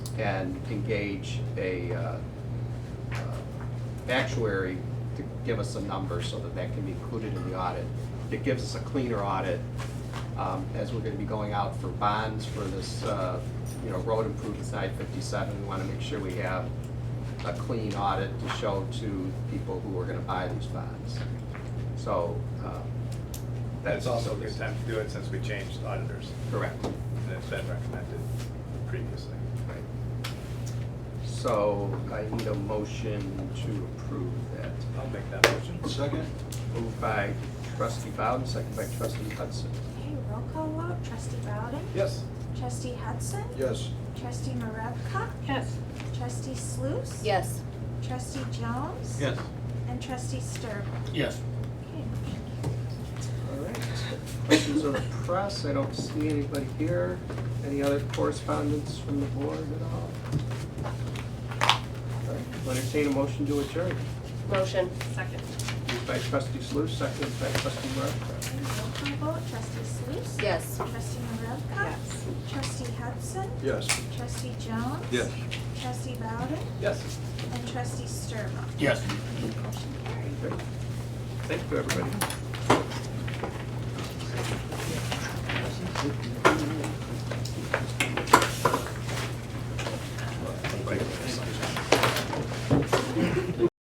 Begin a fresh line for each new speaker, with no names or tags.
and engage a uh, uh, actuary to give us some numbers so that that can be included in the audit. It gives us a cleaner audit, um, as we're gonna be going out for bonds for this, uh, you know, road improvements, I fifty-seven, we wanna make sure we have a clean audit to show to people who are gonna buy these bonds. So, um, that's.
That's also a good time to do it since we changed auditors,
Correct.
and it's been recommended previously.
Right. So I need a motion to approve that.
I'll make that motion.
Second?
Moved by trustee Bowden, second by trustee Hudson.
Okay, roll call vote, trustee Bowden,
Yes.
trustee Hudson,
Yes.
trustee Maravka,
Yes.
trustee Sluse.
Yes.
Trustee Jones.
Yes.
And trustee Sturba.
Yes.
Okay,
All right. Questions of the press? I don't see anybody here. Any other correspondence from the board at all? All right, I'll Entertain a motion to adjourn.
Motion. Second.
Moved by trustee Sluse, second by trustee Maravka.
okay, roll call vote, trustee Sluse.
Yes.
Trustee Maravka.
Yes.
Trustee Hudson,
Yes.
trustee Jones.
Yes.
Trustee Bowden
Yes.
and trustee Sturba.
Yes.
Motion carried.
Great. Thank you, everybody.